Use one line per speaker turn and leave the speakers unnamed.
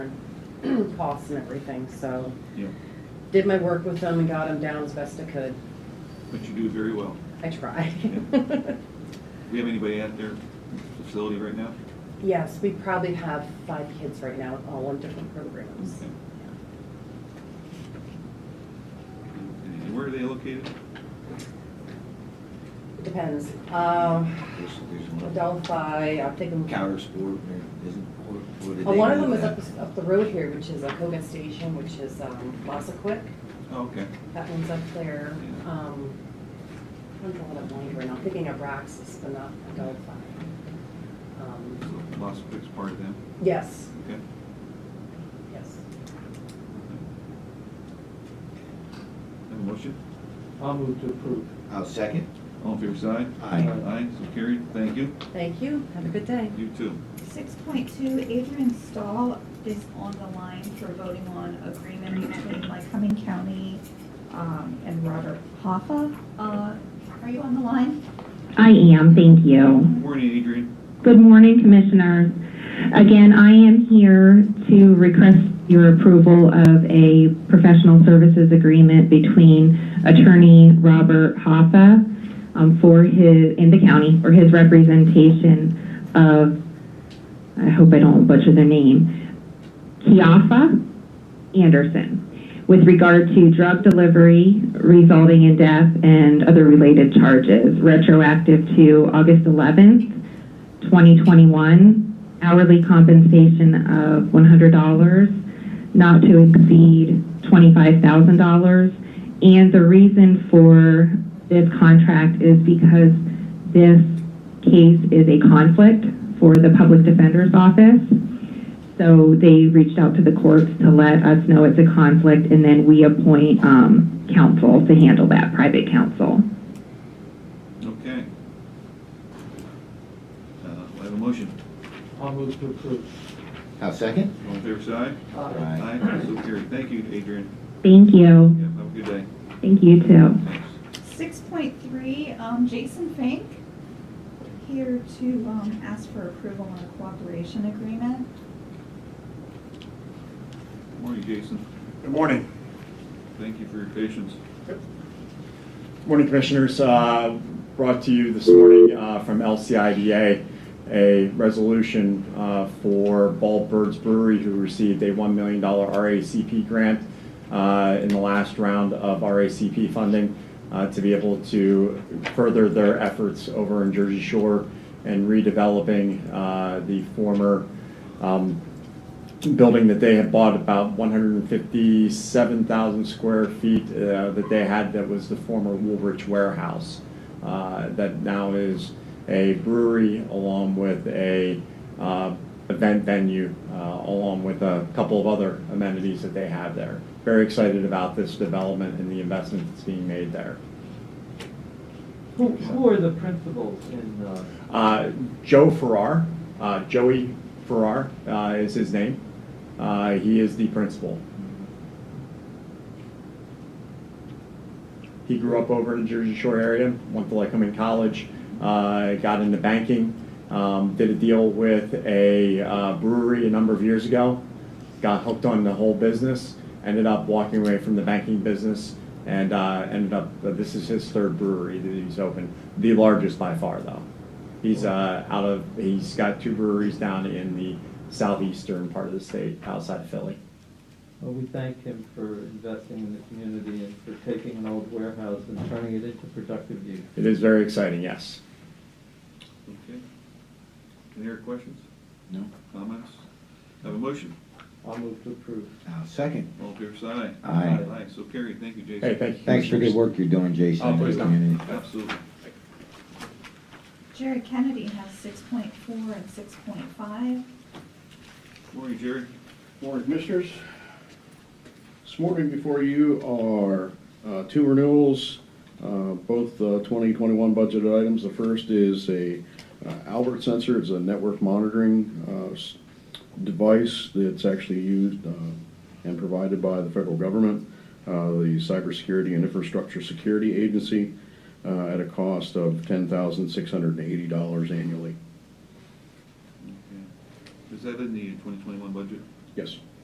costs and everything, so
Yeah,
did my work with them and got them down as best I could.
but you do very well.
I tried.
We have anybody at their facility right now?
Yes, we probably have five kids right now, all on different programs.
Okay. And where are they located?
It Depends. Um,
There's, there's one
Adelphi, I'll take them.
counter sport, and there isn't, what, what did
Uh,
they
One of
do
them
with
is up,
that?
up the road here, which is a Koga Station, which is um, Quick.
Oh, okay.
That one's up there.
Yeah.
Um, I don't know what I'm wondering. I'm thinking of Roxas, but not Adelphi.
So
Um,
Las Vegas part of them,
Yes,
okay.
yes.
Have a motion?
I'll move to approve.
I'll second.
All in favor, side?
Aye.
Aye, so carried. Thank you.
Thank you. Have a good day.
You too.
Six point two, Adrian Stahl is on the line for voting on agreement between Lycoming County um, and Robert Hoffa. Uh, Are you on the line?
I am, thank you.
Morning, Adrian.
Good morning, Commissioners. Again, I am here to request your approval of a professional services agreement between Attorney Robert Hoffa um, for his, in the county, for his representation of, I hope I don't butcher their name, Kiafa Anderson, with regard to drug delivery resulting in death and other related charges, retroactive to August 11th, 2021, hourly compensation of $100, not to exceed $25,000. And the reason for this contract is because this case is a conflict for the Public Defender's Office. So they reached out to the courts to let us know it's a conflict, and then we appoint um, counsel to handle that, private counsel.
Okay. Uh, I have a motion.
I'll move to approve.
I'll second.
All in favor, side?
Aye.
Aye.
Aye, so carried. Thank you, Adrian.
Thank you.
Yeah, have a good day.
Thank you, too.
Thanks.
Six point three, um, Jason Fink, here to um, ask for approval on a cooperation agreement.
Morning, Jason.
Good morning.
Thank you for your patience.
Morning, Commissioners. Uh, Brought to you this morning uh, from LCIDA, a resolution uh, for Bald Birds Brewery, who received a $1 million RACP grant uh, in the last round of RACP funding uh, to be able to further their efforts over in Jersey Shore and redeveloping uh, the former um, building that they had bought about 157,000 square feet uh, that they had that was the former Woolrich warehouse uh, that now is a brewery along with a uh, event venue uh, along with a couple of other amenities that they have there. Very excited about this development and the investment that's being made there.
Who, who are the principals in, uh,
Uh, Joe Farrar, uh, Joey Farrar uh, is his name. Uh, He is the principal. He grew up over in the Jersey Shore area, went to Lycoming College, uh, got into banking, um, did a deal with a uh, brewery a number of years ago, got hooked on the whole business, ended up walking away from the banking business, and uh, ended up, this is his third brewery that he's opened, the largest by far, though. He's uh, out of, he's got two breweries down in the southeastern part of the state, outside of Philly.
well, we thank him for investing in the community and for taking an old warehouse and turning it into productive use.
It is very exciting, yes.
Okay. Any other questions,
No.
comments? Have a motion.
I'll move to approve.
I'll second.
All in favor, say aye.
Aye.
Aye, so carried. Thank you, Jason.
Hey, thank you.
Thanks for
Commissioners.
good work you're doing, Jason.
Oh, please don't.
And-
Absolutely.
Jerry Kennedy has six point four and six point five.
Morning, Jerry.
Morning, Commissioners. This morning before you are uh, two renewals, uh, both uh, 2021 budgeted items. The first is a uh, Albert sensor, it's a network monitoring uh, s- device that's actually used uh, and provided by the federal government, uh, the Cybersecurity and Infrastructure Security Agency, uh, at a cost of $10,680 annually.
Okay. Is that in the 2021 budget?
Yes.